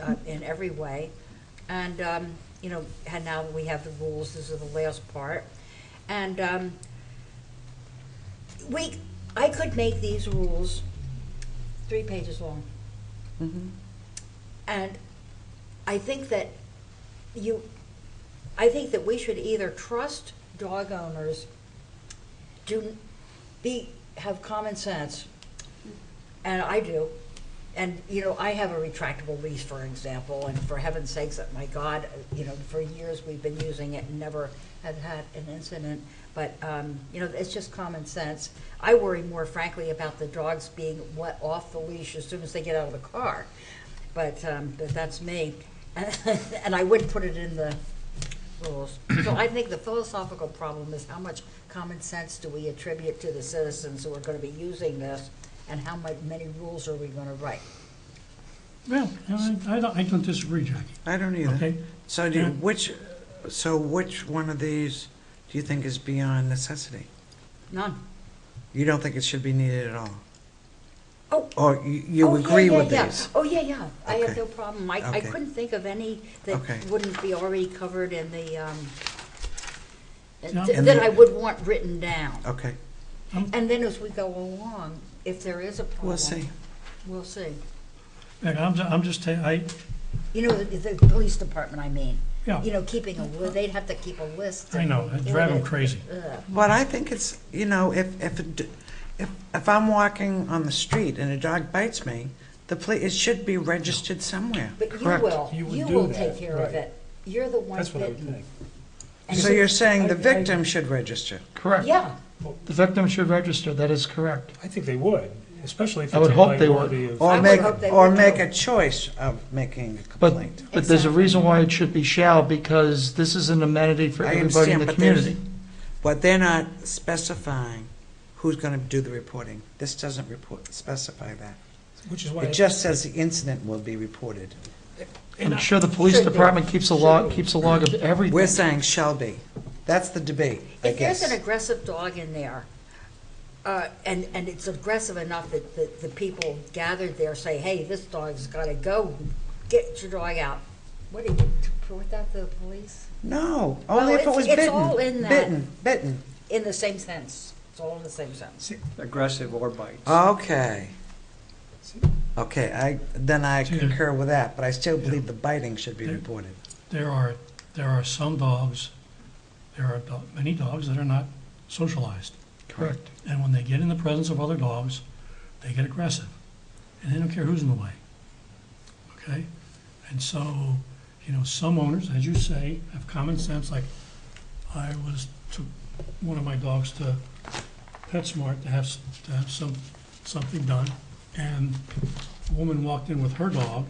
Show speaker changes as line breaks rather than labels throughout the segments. uh, in every way. And, um, you know, and now we have the rules, this is the last part. And, um, we, I could make these rules three pages long. And I think that you, I think that we should either trust dog owners, do, be, have common sense, and I do. And, you know, I have a retractable leash, for example, and for heaven's sakes, that my God, you know, for years we've been using it and never have had an incident. But, um, you know, it's just common sense. I worry more frankly about the dogs being let off the leash as soon as they get out of the car. But, um, but that's me. And I would put it in the rules. So I think the philosophical problem is how much common sense do we attribute to the citizens who are gonna be using this? And how mu- many rules are we gonna write?
Well, I, I don't, I don't disagree, Jackie.
I don't either.
Okay.
So do, you-
Yeah.
which, so which one of these do you think is beyond necessity?
None.
You don't think it should be needed at all?
Oh.
Or you, you
Oh, yeah,
agree
yeah,
with
yeah.
these?
Oh, yeah, yeah. I have
Okay.
no problem. I, I
Okay.
couldn't think of any
Okay.
that wouldn't be already covered in the, um, th-
No.
And
that
the-
I would want written down.
Okay,
And then as we go along, if there is a problem.
we'll see.
We'll see.
Like, I'm, ju- I'm just, ta- I,
You know, the, the police department, I mean.
Yeah.
You know, keeping a, li- they'd have to keep a list.
I know, it'd drive 'em crazy.
Ugh.
But I think it's, you know, if, if, it d- if, if I'm walking on the street and a dog bites me, the police, it should be registered somewhere.
But you
Correct.
will,
You would
you
do
will
that,
take care of
right.
it. You're the one
That's what I would
bitten.
think.
And
So
so-
you're saying the
I- I-
victim should register?
Correct.
Yeah,
The victim should register, that is correct.
I think they would, especially if
I
it's
would
a
hope they would.
minority of.
I
Or
would
make,
hope they
or
would.
make a choice of making a
But,
complaint?
but there's a
Exactly.
reason why it should be shall, because this is an amenity for
I
everybody in
understand,
the
but there's-
community.
But they're not specifying who's gonna do the reporting. This doesn't report, specify that.
Which is why.
It just says the incident will be reported.
and
I'm
I-
sure the police
Should be.
department keeps a
Should
log,
be.
keeps a log of
We're
everything.
saying shall be. That's the debate, I
if there's an
guess.
aggressive dog in there, uh, and, and it's aggressive enough that the, the people gathered there say, hey, this dog's gotta go, get your dog out. What, do you report that to the police?
No, only if it
Well,
was
it's- it's
bitten.
all in that.
Bitten, bitten.
In the same sense, it's all in the same sense.
aggressive or bites.
Okay. Okay, I, then I
See,
concur with that, but I still believe the biting should be reported.
there are, there are some dogs, there are do- many dogs that are not socialized.
Correct.
And when they get in the presence of other dogs, they get aggressive. And they don't care who's in the way. Okay? And so, you know, some owners, as you say, have common sense, like I was, took one of my dogs to PetSmart to have, s- to have some, something done. And a woman walked in with her dog,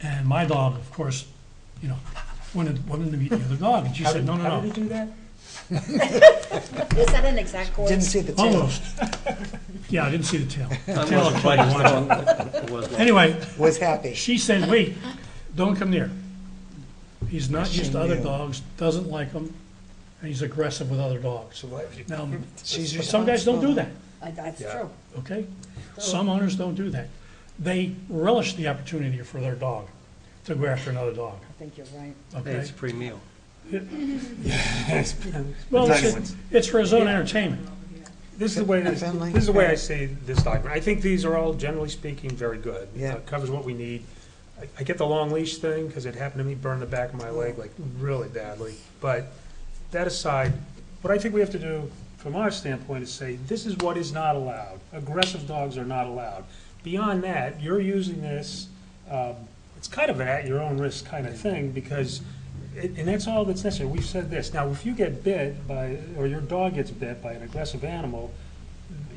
and my dog, of course, you know, wanted, wanted to meet the other dog, and she
How
said,
did,
no, no, no.
how did he do that?
Is that an exact quote?
Didn't see the
Oh.
tail.
Almost. Yeah, I didn't see the tail. The
That
tail will
wasn't
kill you
biting,
once.
it was long.
Anyway,
Was happy.
she said, wait, don't come near. He's not
She
used to other
knew.
dogs, doesn't like them, and he's aggressive with other dogs.
So why-
Now,
She's
some guys don't do that,
Uh, That's
Yeah.
true.
okay? Some owners don't do that. They relish the opportunity for their dog to go after another dog,
I think you're right.
Hey,
okay?
it's pre-meal.
Well, it's, it's for his own entertainment.
This is the way, this
Sound like-
is the way I see this document. I think these are all, generally speaking, very good.
Yeah.
Uh, Covers what we need. I- I get the long leash thing, because it happened to me, burned the back of my leg like really badly. But that aside, what I think we have to do, from our standpoint, is say, this is what is not allowed. Aggressive dogs are not allowed. Beyond that, you're using this, um, it's kind of an at-your-own-risk kind of thing, because it- And that's all that's necessary. We've said this. Now, if you get bit by, or your dog gets bit by an aggressive animal,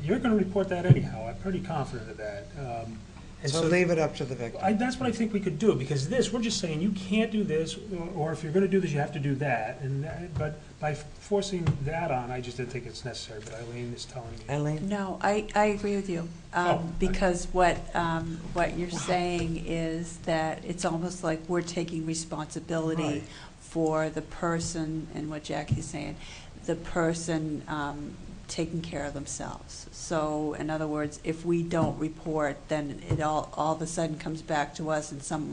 you're gonna report that anyhow. I'm pretty confident of that. Um, And
So
so,
leave it up to the victim.
I, that's what I think we could do, because this, we're just saying, you can't do this, or- or if you're gonna do this, you have to do that. And, that- but by forcing that on, I just didn't think it's necessary, but Eileen is telling me.
Eileen?
No, I, I agree with you,
Oh, okay.
um, because what, um, what you're saying is that it's almost like we're taking
Right.
responsibility for the person, and what Jackie's saying, the person um, taking care of themselves. So, in other words, if we don't report, then it all, all of a sudden comes back to us in some